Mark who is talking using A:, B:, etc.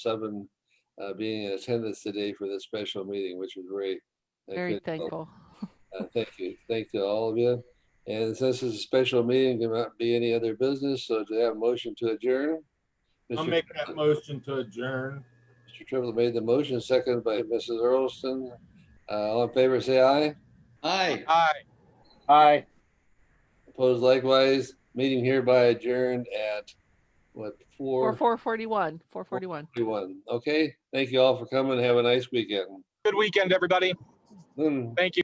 A: seven uh, being in attendance today for this special meeting, which was great. I
B: Very
A: couldn't help-
B: thankful.
A: uh, Thank you. Thank to all of you. And since it's a special meeting, there might be any other business, so do I have a motion to adjourn?
C: I'll
A: Mr.
C: make that motion to adjourn.
A: Mr. Triplett made the motion, seconded by Mrs. Earlston. Uh, All in favor, say aye.
D: Aye.
C: Aye. Aye.
A: Opposed likewise. Meeting hereby adjourned at, what,
B: Or
A: four
B: 441, 441.
A: forty-one? Okay, thank you all for coming. Have a nice weekend.
E: Good weekend, everybody.
A: Mm.
E: Thank you.